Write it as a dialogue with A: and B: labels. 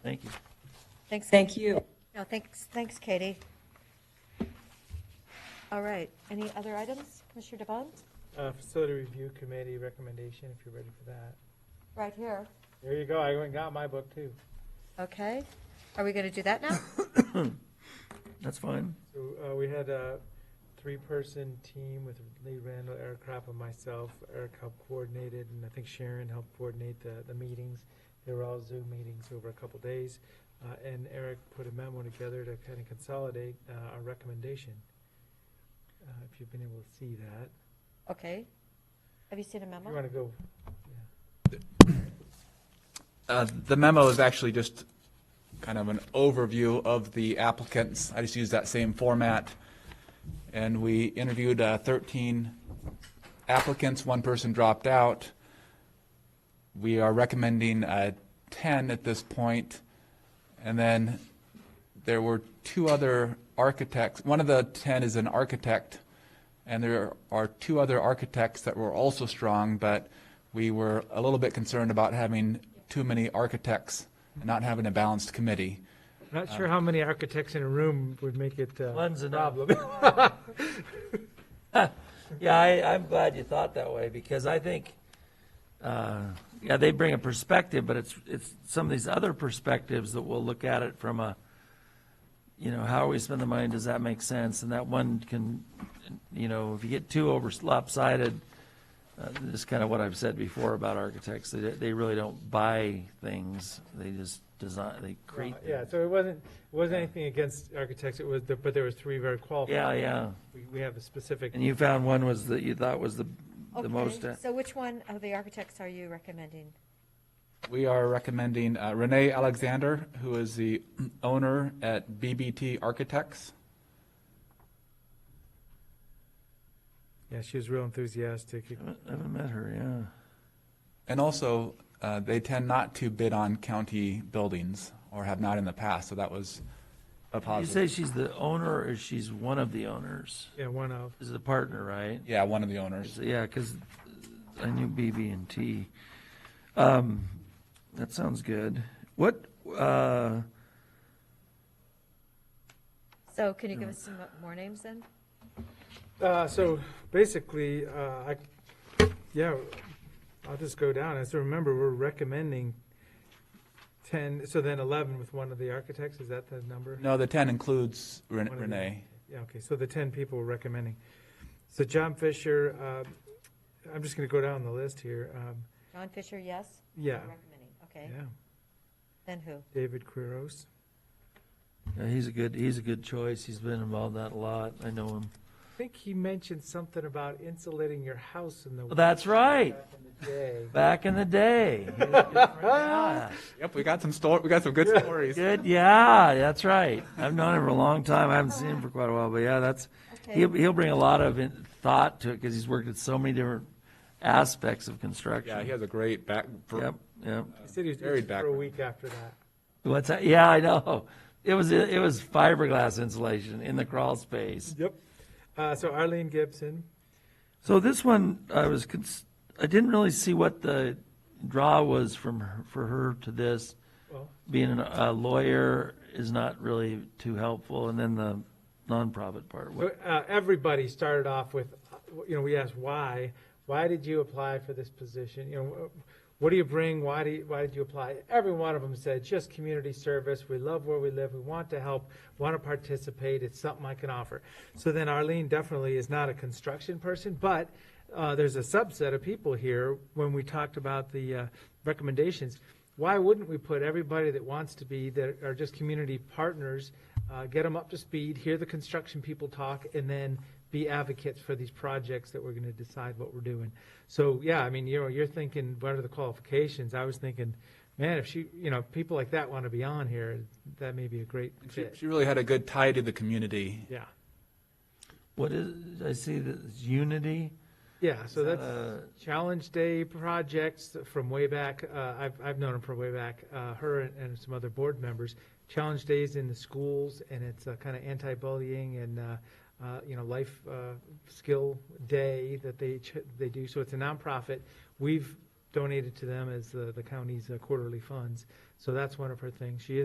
A: Thanks.
B: Thank you.
A: No, thanks, thanks, Katie. All right, any other items, Commissioner Devon?
C: Uh, Facility Review Committee recommendation, if you're ready for that.
A: Right here.
C: There you go, I went and got my book too.
A: Okay, are we going to do that now?
D: That's fine.
C: So uh, we had a three-person team with Lee Randall, Eric Krapp, and myself. Eric helped coordinated, and I think Sharon helped coordinate the, the meetings. They were all Zoom meetings over a couple days. Uh, And Eric put a memo together to kind of consolidate uh, our recommendation. Uh, If you've been able to see that,
A: Okay. Have you seen a
C: if you
A: memo?
C: want to go,
E: Uh, The memo is actually just kind of an overview of the applicants. I just used that same format. And we interviewed uh, 13 applicants, one person dropped out. We are recommending uh, 10 at this point. And then there were two other architects. One of the 10 is an architect, and there are two other architects that were also strong, but we were a little bit concerned about having too many architects and not having a balanced committee.
C: not sure how many architects in a room would make it uh, a
B: One's enough.
C: problem.
B: Yeah, I, I'm glad you thought that way, because I think, uh, yeah, they bring a perspective, but it's, it's some of these other perspectives that we'll look at it from a, you know, how we spend the money, does that make sense? And that one can, you know, if you get too over lopsided, uh, this is kind of what I've said before about architects, they, they really don't buy things, they just design, they create.
C: Well, Yeah, so it wasn't, it wasn't anything against architects, it was, the- but there was three very qualified.
B: Yeah, yeah,
C: We- We have a specific,
B: and you found one was that you thought was the, the most. uh,
C: uh,
A: Okay, so which one of the architects are you recommending?
E: We are recommending uh, Renee Alexander, who is the owner at BBT Architects.
C: yeah, she was real enthusiastic.
B: I haven't met her, yeah.
E: And also, uh, they tend not to bid on county buildings, or have not in the past, so that was a
B: You say
E: positive.
B: she's the owner or she's one of the owners?
C: Yeah, one of,
B: Is the partner, right?
E: Yeah, one of the owners.
B: So, Yeah, because I knew BB and T. Um, that sounds good. What, uh,
A: So can you give us some more names then?
C: uh, so basically, uh, I, yeah, I'll just go down. As I remember, we're recommending ten, so then eleven with one of the architects, is that the number?
E: No, the 10 includes Ren-
C: One of the-
E: Renee.
C: Yeah, okay, so the ten people we're recommending. So John Fisher, uh, I'm just gonna go down the list here, um,
A: John Fisher, yes?
C: yeah,
A: Recommending, okay.
C: yeah,
A: Then who?
C: David Quiros.
B: yeah, he's a good, he's a good choice. He's been involved in that a lot. I know him.
C: I think he mentioned something about insulating your house in the.
B: Well, that's right.
C: back in the day.
B: Back in the day. He was good for that.
E: Yep, we got some sto, we got some good stories.
B: Good, yeah, that's right. I've known him for a long time. I haven't seen him for quite a while, but yeah, that's,
A: Okay,
B: He'll, he'll bring a lot of in- thought to it because he's worked at so many different aspects of construction.
E: Yeah, he has a great back,
B: Yep, yep.
C: He said he was
E: Very
C: itching for a
E: backward.
C: week after that.
B: What's that? Yeah, I know. It was, it was fiberglass insulation in the crawl space.
C: Yep. Uh, so Arlene Gibson,
B: So this one, I was, cons- I didn't really see what the draw was from, her- for her to this.
C: well,
B: Being an- a lawyer is not really too helpful. And then the nonprofit part.
C: so,
B: What-
C: uh, everybody started off with, uh, you know, we asked why, why did you apply for this position? You know, wh- what do you bring? Why do you, why did you apply? Every one of them said, just community service. We love where we live. We want to help, want to participate. It's something I can offer. So then Arlene definitely is not a construction person, but uh, there's a subset of people here when we talked about the uh, recommendations. Why wouldn't we put everybody that wants to be, that are just community partners, uh, get them up to speed, hear the construction people talk, and then be advocates for these projects that we're going to decide what we're doing? So, yeah, I mean, you know, you're thinking, what are the qualifications? I was thinking, man, if she, you know, people like that want to be on here, that may be a great
E: She,
C: fit.
E: she really had a good tie to the community.
C: Yeah,
B: What is, I see that it's unity. Uh,
C: yeah, so
B: Is that
C: that's.
B: a-
C: Challenge Day projects from way back. Uh, I've, I've known them from way back, uh, her and, and some other board members. Challenge Days in the schools, and it's uh, kind of anti-bullying and, uh, uh, you know, life uh, skill day that they, ch- they do. So it's a nonprofit. We've donated to them as the, the county's uh, quarterly funds. So that's one of her things. She is